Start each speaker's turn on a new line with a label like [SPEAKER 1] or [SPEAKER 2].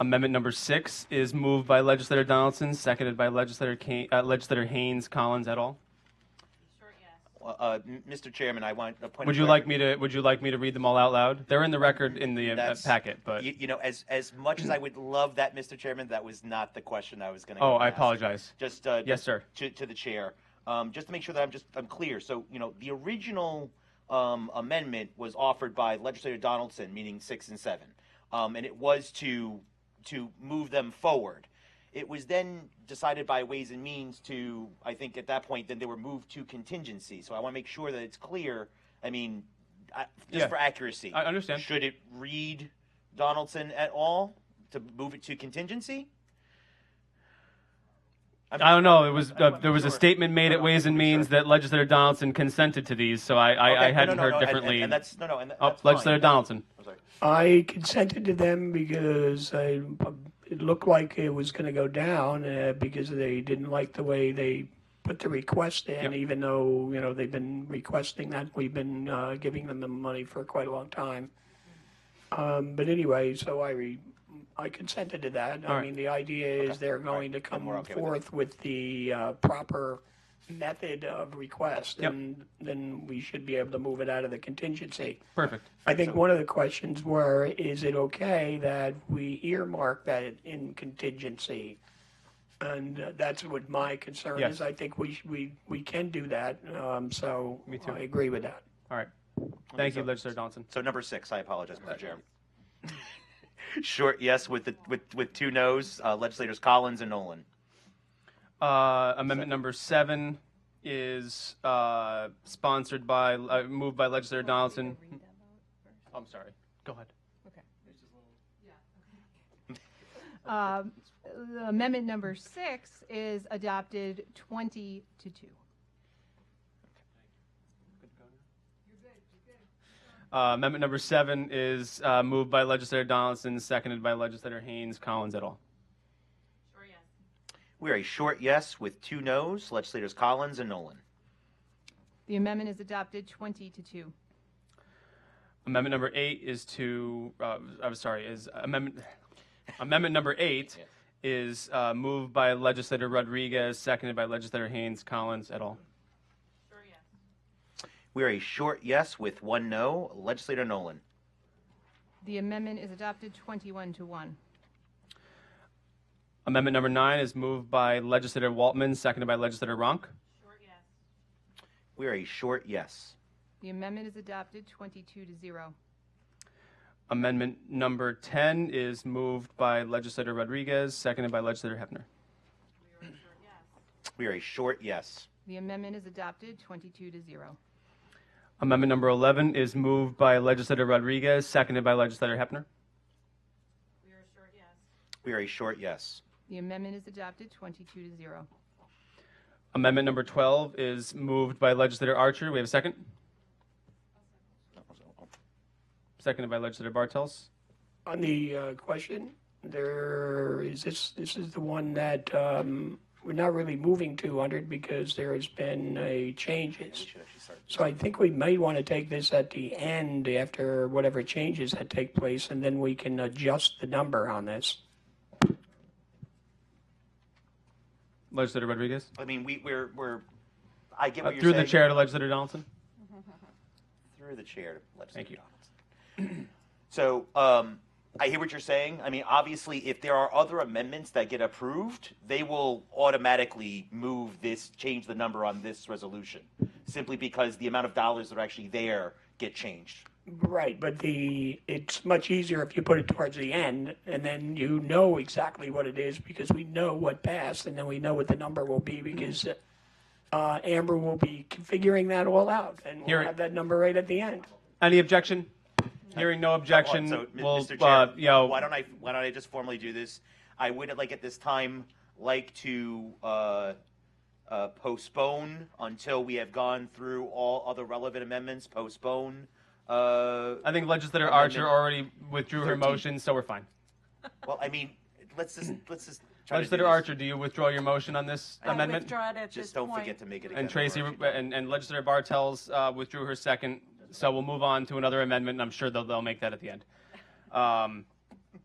[SPEAKER 1] Amendment number six is moved by legislator Donaldson, seconded by legislator Kane, uh, legislator Haynes, Collins et al.
[SPEAKER 2] Short yes.
[SPEAKER 3] Uh, uh, m- Mr. Chairman, I want a point.
[SPEAKER 1] Would
[SPEAKER 3] of
[SPEAKER 1] you
[SPEAKER 3] clar-
[SPEAKER 1] like me to, would you like me to read them all out loud? They're in the record in the uh,
[SPEAKER 3] That's-
[SPEAKER 1] packet, but,
[SPEAKER 3] You, you know, as as much as I would love that, Mr. Chairman, that was not the question I was going to.
[SPEAKER 1] oh, I apologize.
[SPEAKER 3] Just uh,
[SPEAKER 1] Yes, sir.
[SPEAKER 3] to, to the chair, um, just to make sure that I'm just, I'm clear. So, you know, the original, um, amendment was offered by legislator Donaldson, meaning six and seven. Um, and it was to, to move them forward. It was then decided by Ways and Means to, I think at that point, then they were moved to contingency. So I want to make sure that it's clear. I mean, I,
[SPEAKER 1] Yeah.
[SPEAKER 3] just for accuracy.
[SPEAKER 1] I understand.
[SPEAKER 3] Should it read Donaldson at all to move it to contingency?
[SPEAKER 1] I don't know, it was,
[SPEAKER 3] I
[SPEAKER 1] uh,
[SPEAKER 3] wanna
[SPEAKER 1] there was a
[SPEAKER 3] make sure.
[SPEAKER 1] statement made
[SPEAKER 3] No,
[SPEAKER 1] at
[SPEAKER 3] no,
[SPEAKER 1] Ways
[SPEAKER 3] I
[SPEAKER 1] and
[SPEAKER 3] wanna make
[SPEAKER 1] Means
[SPEAKER 3] sure.
[SPEAKER 1] that legislator Donaldson consented to these, so I,
[SPEAKER 3] Okay,
[SPEAKER 1] I, I
[SPEAKER 3] no,
[SPEAKER 1] hadn't
[SPEAKER 3] no,
[SPEAKER 1] heard
[SPEAKER 3] no, no, and- and-
[SPEAKER 1] differently.
[SPEAKER 3] And that's, no, no, and that-
[SPEAKER 1] Oh,
[SPEAKER 3] that's fine.
[SPEAKER 1] legislator
[SPEAKER 3] That's-
[SPEAKER 1] Donaldson.
[SPEAKER 3] I'm sorry.
[SPEAKER 4] I consented to them because I, it looked like it was going to go down uh, because they didn't like the way they put the request
[SPEAKER 1] Yep.
[SPEAKER 4] in, even though, you know, they've been requesting that. We've been uh, giving them the money for quite a long time. Um, but anyway, so I, re, I consented to that. I
[SPEAKER 1] right.
[SPEAKER 4] mean, the idea is they're
[SPEAKER 3] right.
[SPEAKER 4] going to
[SPEAKER 3] Then
[SPEAKER 4] come
[SPEAKER 3] we're okay with it.
[SPEAKER 4] forth with the uh, proper method of request,
[SPEAKER 1] Yep.
[SPEAKER 4] and then we should be able to move it out of the contingency.
[SPEAKER 1] Perfect.
[SPEAKER 4] I think one of the questions were, is it okay that we earmark that in contingency? And uh, that's what my concern
[SPEAKER 1] Yes.
[SPEAKER 4] is. I think we, sh- we, we can do that, um, so
[SPEAKER 1] Me too.
[SPEAKER 4] I agree with that.
[SPEAKER 1] All right. Thank you,
[SPEAKER 3] so-
[SPEAKER 1] legislator Donaldson.
[SPEAKER 3] So number six, I apologize, Mr. Chair. Short yes with the, with, with two noes, uh, legislators Collins and Nolan.
[SPEAKER 1] Uh, amendment number seven is uh, sponsored by, uh, moved by legislator Donaldson. I'm sorry. Go ahead.
[SPEAKER 2] Um, the Amendment number six is adopted 20 to 2.
[SPEAKER 1] Uh, amendment number seven is uh, moved by legislator Donaldson, seconded by legislator Haynes, Collins et al.
[SPEAKER 3] We are a short yes with two noes, legislators Collins and Nolan.
[SPEAKER 2] The amendment is adopted 20 to 2.
[SPEAKER 1] Amendment number eight is to, uh, I'm sorry, is amendment, amendment number eight is uh, moved by legislator Rodriguez, seconded by legislator Haynes, Collins et al.
[SPEAKER 3] We are a short yes with one no, legislator Nolan.
[SPEAKER 2] The amendment is adopted 21 to 1.
[SPEAKER 1] Amendment number nine is moved by legislator Waltman, seconded by legislator Ronk.
[SPEAKER 3] We are a short yes.
[SPEAKER 2] The amendment is adopted 22 to 0.
[SPEAKER 1] Amendment number 10 is moved by legislator Rodriguez, seconded by legislator Hefner.
[SPEAKER 3] We are a short yes.
[SPEAKER 2] The amendment is adopted 22 to 0.
[SPEAKER 1] Amendment number 11 is moved by legislator Rodriguez, seconded by legislator Hefner.
[SPEAKER 3] We are a short yes.
[SPEAKER 2] The amendment is adopted 22 to 0.
[SPEAKER 1] Amendment number 12 is moved by legislator Archer. We have a second. Seconded by legislator Bartels.
[SPEAKER 4] On the uh, question, there is this, this is the one that um, we're not really moving to under it because there has been a changes.
[SPEAKER 3] Should actually start.
[SPEAKER 4] So I think we may want to take this at the end after whatever changes that take place, and then we can adjust the number on this.
[SPEAKER 1] Legislator Rodriguez.
[SPEAKER 3] I mean, we, we're, we're, I
[SPEAKER 1] Uh,
[SPEAKER 3] get what you're
[SPEAKER 1] through
[SPEAKER 3] saying.
[SPEAKER 1] the chair to legislator Donaldson.
[SPEAKER 3] through the chair to
[SPEAKER 1] Thank you.
[SPEAKER 3] Legislator Donaldson. So um, I hear what you're saying. I mean, obviously, if there are other amendments that get approved, they will automatically move this, change the number on this resolution, simply because the amount of dollars that are actually there get changed.
[SPEAKER 4] Right, but the, it's much easier if you put it towards the end, and then you know exactly what it is, because we know what passed, and then we know what the number will be, because uh, Amber will be figuring that all out, and
[SPEAKER 1] Here-
[SPEAKER 4] we'll have that number right at the end.
[SPEAKER 1] Any objection? Hearing no objection,
[SPEAKER 3] So, M-
[SPEAKER 1] we'll,
[SPEAKER 3] Mr.
[SPEAKER 1] uh,
[SPEAKER 3] Chair,
[SPEAKER 1] you know,
[SPEAKER 3] why don't I why don't I just formally do this? I would like at this time like to uh, uh, postpone until we have gone through all other relevant amendments. Postpone. Uh,
[SPEAKER 1] I think legislator
[SPEAKER 3] Amendment
[SPEAKER 1] Archer already withdrew her
[SPEAKER 3] 13.
[SPEAKER 1] motion, so we're fine.
[SPEAKER 3] well, I mean, let's just let's just. Try to do
[SPEAKER 1] Legislator
[SPEAKER 3] this.
[SPEAKER 1] Archer, do you withdraw your motion on this
[SPEAKER 5] I
[SPEAKER 1] amendment?
[SPEAKER 5] withdraw it at this
[SPEAKER 3] Just don't
[SPEAKER 5] point.
[SPEAKER 3] forget to make it.
[SPEAKER 1] And
[SPEAKER 3] again,
[SPEAKER 1] Tracy
[SPEAKER 3] Laura, if you
[SPEAKER 1] and, and Legislator Bartels uh, withdrew her second, so we'll move on to another amendment, and I'm sure they'll, they'll make that at the end. Um,